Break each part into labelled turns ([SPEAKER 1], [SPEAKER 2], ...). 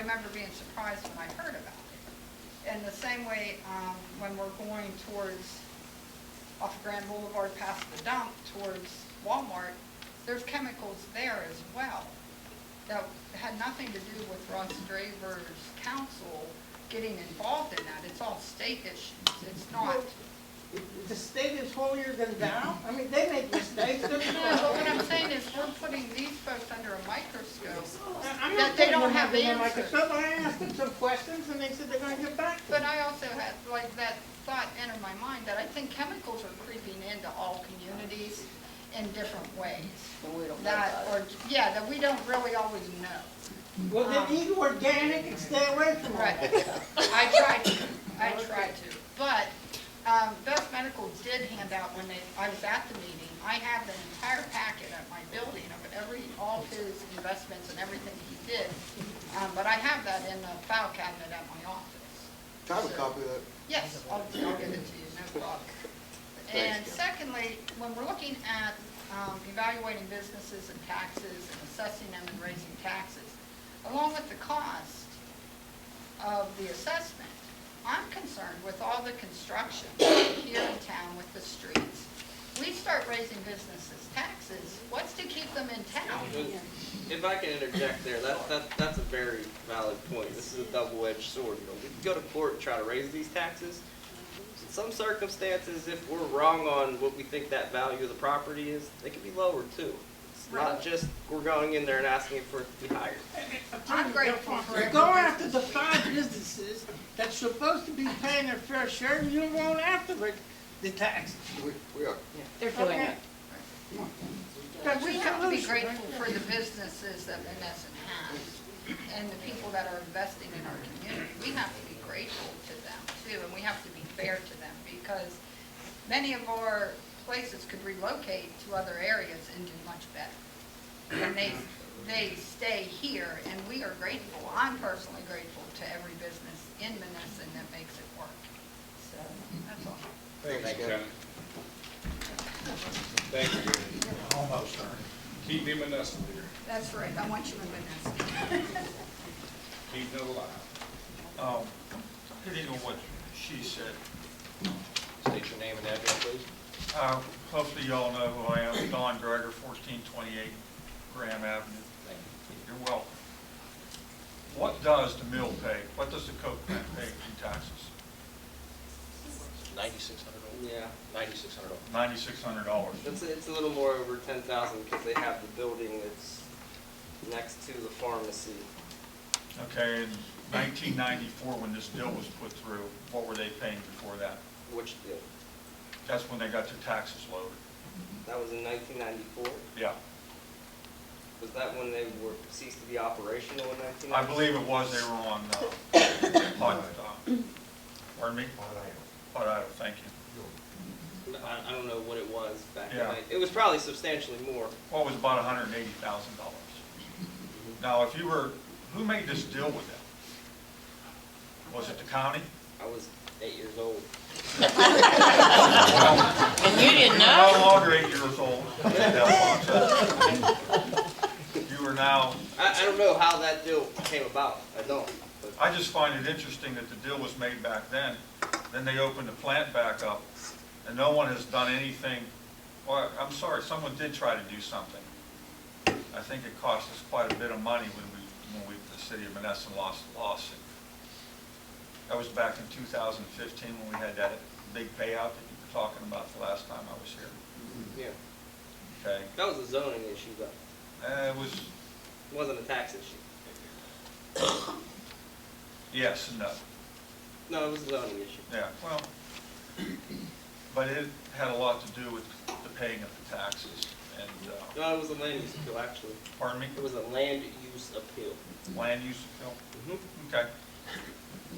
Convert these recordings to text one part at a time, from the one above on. [SPEAKER 1] remember being surprised when I heard about it. In the same way, um, when we're going towards, off of Grand Boulevard past the dump towards Walmart, there's chemicals there as well that had nothing to do with Russ Draver's council getting involved in that. It's all state issues. It's not,
[SPEAKER 2] The state is holier than thou? I mean, they make mistakes. they're-
[SPEAKER 1] no, but what I'm saying is we're putting these folks under a microscope.
[SPEAKER 2] I'm
[SPEAKER 1] That
[SPEAKER 2] not
[SPEAKER 1] they
[SPEAKER 2] putting
[SPEAKER 1] don't
[SPEAKER 2] them
[SPEAKER 1] have
[SPEAKER 2] under the
[SPEAKER 1] answers.
[SPEAKER 2] microscope. I asked them some questions and they said they're gonna get back to
[SPEAKER 1] But
[SPEAKER 2] me.
[SPEAKER 1] I also had, like, that thought entered my mind that I think chemicals are creeping into all communities in different ways.
[SPEAKER 3] But we don't know
[SPEAKER 1] That,
[SPEAKER 3] about
[SPEAKER 1] or, yeah, that we don't really always know.
[SPEAKER 2] Well, then eat organic and stay away from all
[SPEAKER 1] Right.
[SPEAKER 2] that.
[SPEAKER 1] I tried to, I tried to. But um, Best Medical did hand out when they, I was at the meeting, I have the entire packet at my building of every, all his investments and everything he did. Um, But I have that in the file cabinet at my office.
[SPEAKER 4] Can I have a copy of that?
[SPEAKER 1] Yes, I'll, I'll give it to you, no problem. And secondly, when we're looking at um, evaluating businesses and taxes and assessing them and raising taxes, along with the cost of the assessment, I'm concerned with all the construction here in town with the streets. We start raising businesses' taxes, what's to keep them in town?
[SPEAKER 5] If I can interject there, that, that, that's a very valid point. This is a double-edged sword. You know, we can go to court and try to raise these taxes. In some circumstances, if we're wrong on what we think that value of the property is, they can be lowered too. It's
[SPEAKER 1] Right.
[SPEAKER 5] not just we're going in there and asking for it to be higher.
[SPEAKER 1] I'm grateful for
[SPEAKER 2] They're going after the five businesses that's supposed to be paying their fair share, and you're going after the- the tax.
[SPEAKER 4] We, we are.
[SPEAKER 3] They're doing it.
[SPEAKER 2] That's
[SPEAKER 1] We
[SPEAKER 2] your
[SPEAKER 1] have to be
[SPEAKER 2] solution, right?
[SPEAKER 1] grateful for the businesses that Menneson has and the people that are investing in our community. We have to be grateful to them too, and we have to be fair to them because many of our places could relocate to other areas and do much better. And they, they stay here and we are grateful. I'm personally grateful to every business in Menneson that makes it work. So, that's all.
[SPEAKER 6] Thanks,
[SPEAKER 4] Thanks,
[SPEAKER 6] Kevin. Thank you. Almost, Ernie. Keep him in us, dear.
[SPEAKER 1] That's right. I want you in Menneson.
[SPEAKER 6] Keep him alive.
[SPEAKER 7] Um, Hitting on what she said,
[SPEAKER 5] State your name and address, please.
[SPEAKER 7] uh, hopefully y'all know who I am, Don Greger, 1428 Graham Avenue.
[SPEAKER 5] Thank you.
[SPEAKER 7] You're welcome. What does the mill pay, what does the Coke plant pay in taxes?
[SPEAKER 8] Ninety-six hundred dollars,
[SPEAKER 5] Yeah,
[SPEAKER 8] ninety-six hundred dollars.
[SPEAKER 7] $9,600.
[SPEAKER 5] it's, it's a little more over ten thousand because they have the building that's next to the pharmacy.
[SPEAKER 7] Okay, in 1994, when this deal was put through, what were they paying before that?
[SPEAKER 5] Which, yeah,
[SPEAKER 7] That's when they got their taxes lowered.
[SPEAKER 5] that was in nineteen ninety-four.
[SPEAKER 7] Yeah,
[SPEAKER 5] Was that when they were ceased to be operational in nineteen ninety?
[SPEAKER 7] I believe it was, they were on, uh, Hot, uh, pardon me? Hot Idle, thank you.
[SPEAKER 5] I, I don't know what it was back
[SPEAKER 7] Yeah.
[SPEAKER 5] then. It was probably substantially more.
[SPEAKER 7] What was about hundred and eighty thousand dollars. Now, if you were, who made this deal with them? Was it the county?
[SPEAKER 5] I was eight years old.
[SPEAKER 3] And you didn't know?
[SPEAKER 7] You're no longer eight years old. You are now,
[SPEAKER 5] I, I don't know how that deal came about. I don't. But
[SPEAKER 7] I just find it interesting that the deal was made back then, then they opened the plant back up, and no one has done anything, well, I'm sorry, someone did try to do something. I think it cost us quite a bit of money when we, when we, the city of Menneson lost the lawsuit. That was back in 2015 when we had that big payout that you were talking about the last time I was here,
[SPEAKER 5] yeah,
[SPEAKER 7] okay?
[SPEAKER 5] that was a zoning issue though. It
[SPEAKER 7] Uh, It was,
[SPEAKER 5] wasn't a tax issue.
[SPEAKER 7] yes and no.
[SPEAKER 5] No, it was a zoning issue.
[SPEAKER 7] Yeah, well, but it had a lot to do with the paying of the taxes and, uh,
[SPEAKER 5] No, it was a land use appeal actually.
[SPEAKER 7] pardon me,
[SPEAKER 5] It was a land use appeal.
[SPEAKER 7] land use appeal?
[SPEAKER 5] Mm-hmm.
[SPEAKER 7] Okay.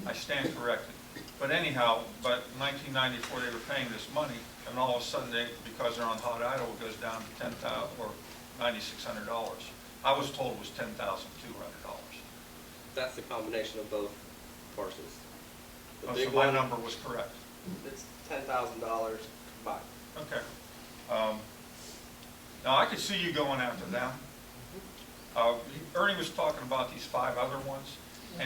[SPEAKER 7] I stand corrected. But anyhow, but 1994, they were paying this money, and all of a sudden, they, because they're on hot idle, it goes down to 10,000, or $9,600. I was told it was $10,200.
[SPEAKER 5] That's the combination of both parcels. The
[SPEAKER 7] Oh, So
[SPEAKER 5] big
[SPEAKER 7] my
[SPEAKER 5] one,
[SPEAKER 7] number was correct.
[SPEAKER 5] it's ten thousand dollars combined.
[SPEAKER 7] Okay. Um, Now, I could see you going after them. Uh, Ernie was talking about these five other ones.